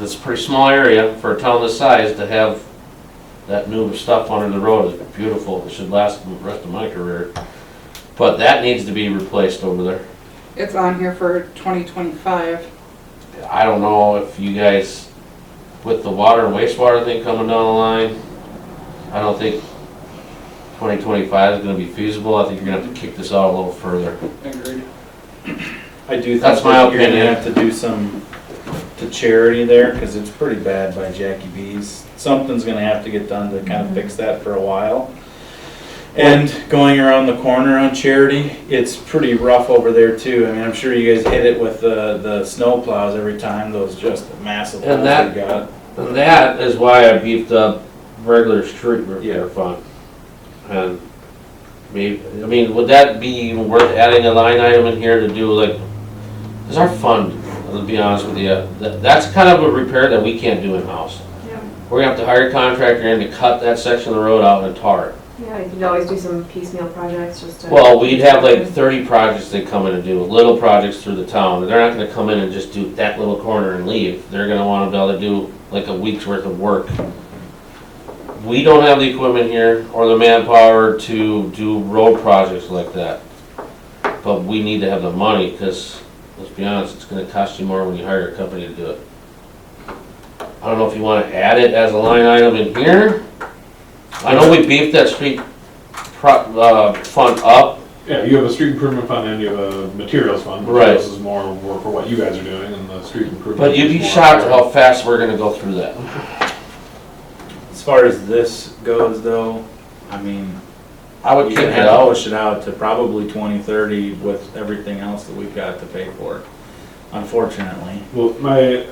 It's a pretty small area for a town this size to have that new stuff under the road. It's beautiful. It should last the rest of my career. But that needs to be replaced over there. It's on here for twenty twenty-five. I don't know if you guys, with the water and wastewater thing coming down the line, I don't think twenty twenty-five is gonna be feasible. I think you're gonna have to kick this out a little further. Agreed. I do think That's my that you're gonna opinion. have to do some to charity there, cause it's pretty bad by Jackie B's. Something's gonna have to get done to kinda fix that for a while. And going around the corner on Charity, it's pretty rough over there too. I mean, I'm sure you guys hit it with the, the snow plows every time, those just massive holes And they that- got. And that is why I beefed up regular street repair fund. And maybe, I mean, would that be even worth adding a line item in here to do like, is our fund, I'll be honest with you, that, that's kind of a repair that we can't do in-house. Yeah. We're gonna have to hire a contractor in to cut that section of the road out and tar it. Yeah, you can always do some piecemeal projects just to. Well, we'd have like thirty projects they come in and do, little projects through the town. They're not gonna come in and just do that little corner and leave. They're gonna wanna be able to do like a week's worth of work. We don't have the equipment here or the manpower to do road projects like that. But we need to have the money, cause let's be honest, it's gonna cost you more when you hire a company to do it. I don't know if you wanna add it as a line item in here. I know we beefed that street pro, uh, fund up, Yeah, you have a street improvement fund and you have a materials fund. Right. This is more more for what you guys are doing and the street improvement. But you'd be is more- shocked how fast we're gonna go through that. As far as this goes though, I mean, I would you kick it have to out. push it out to probably twenty thirty with everything else that we've got to pay for, unfortunately. Well, my,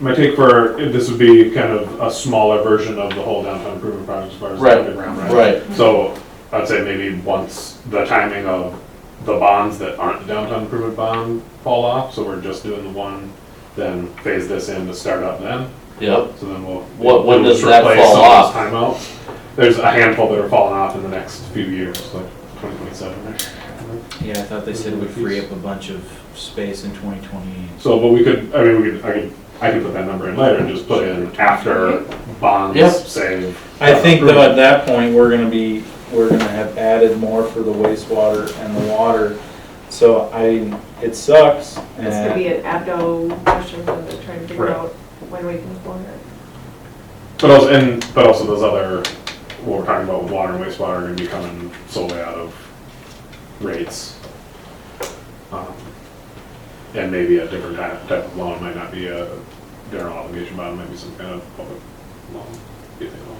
my take for, this would be kind of a smaller version of the whole downtown improvement project as far as the Right, underground, right? Right, So I'd say maybe once the timing of the bonds that aren't the downtown improvement bond fall off, so we're just doing the one, then phase this in to start up then. yeah. So then we'll. What- when we'll does that replace fall off? some of those Timeouts. There's a handful that are falling off in the next few years, like twenty twenty-seven. Yeah, I thought they said we free up a bunch of space in twenty twenty. So, but we could, I mean, we could, I could, I could put that number in later and just put in after Yep. bonds save. I think though at that point, we're gonna be, we're gonna have added more for the wastewater and the water. So I, it sucks. This could and- be an abdo question that they're trying to figure Right. out when we can afford it. But also, and, but also those other, what we're talking about with water and wastewater are gonna be coming solely out of rates. Um, And maybe a different type, type of loan, might not be a general obligation bond, might be some kind of public loan. if they want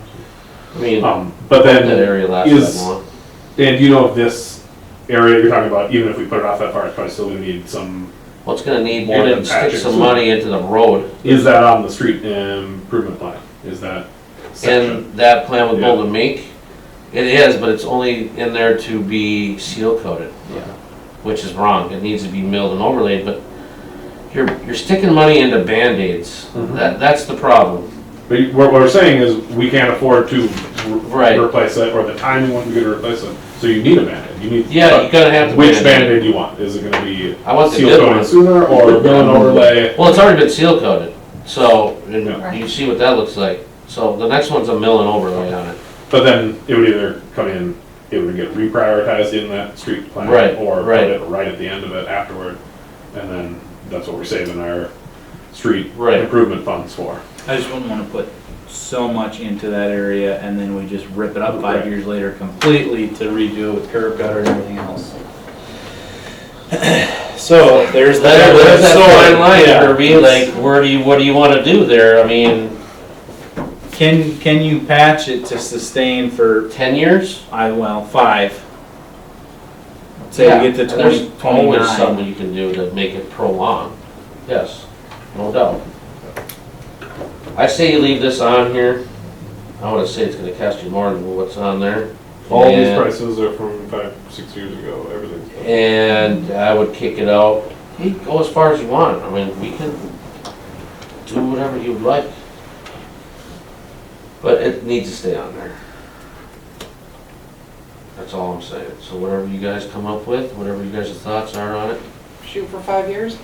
I mean, to. that Um, But then, area lasts is- that long. Dan, do you know if this area you're talking about, even if we put it off that far, it's probably still gonna need some Well, it's gonna need more And than it stick patches. some money into the road. Is that on the street improvement plan? Is that section? And that plan with Yeah. Golden Mink, it is, but it's only in there to be seal coated. Yeah. Which is wrong. It needs to be milled and overlaid, but you're, you're sticking money into Band-Aids. Mhm. That, that's the problem. But you- what we're saying is, we can't afford to re- Right. replace it, or the timing when we're gonna replace it, so you need a Band-Aid, you need. Yeah, you're gonna have to. Which Band-Aid. Band-Aid you want, is it gonna be I want the seal good one. coated sooner, or mill and overlay? Well, it's already been seal coated, so, Yeah. and you see what that looks like. So the next one's a mill and overlay on it. But then it would either come in, it would get reprioritized in that street plan. Right, Or put right. it right at the end of it afterward, and then that's what we're saving our street Right. improvement funds for. I just wouldn't wanna put so much into that area and then we just rip it up five Right. years later completely to redo it with curb gutter and everything else. So there's that. That- There's that fine line, Yeah. Kirby, like, where do you, what do you wanna do there? I mean, Can, can you patch it to sustain for, ten years? I, well, five? Say Yeah, we get to There's twenty, always twenty-nine. something you can do to make it prolong, yes, no doubt. I say you leave this on here, I wanna say it's gonna cost you more than what's on there. All these And- prices are from five, six years ago, everything's. and I would kick it out. You go as far as you want. I mean, we can do whatever you like. But it needs to stay on there. That's all I'm saying. So whatever you guys come up with, whatever you guys' thoughts are on it, Shoot for five years?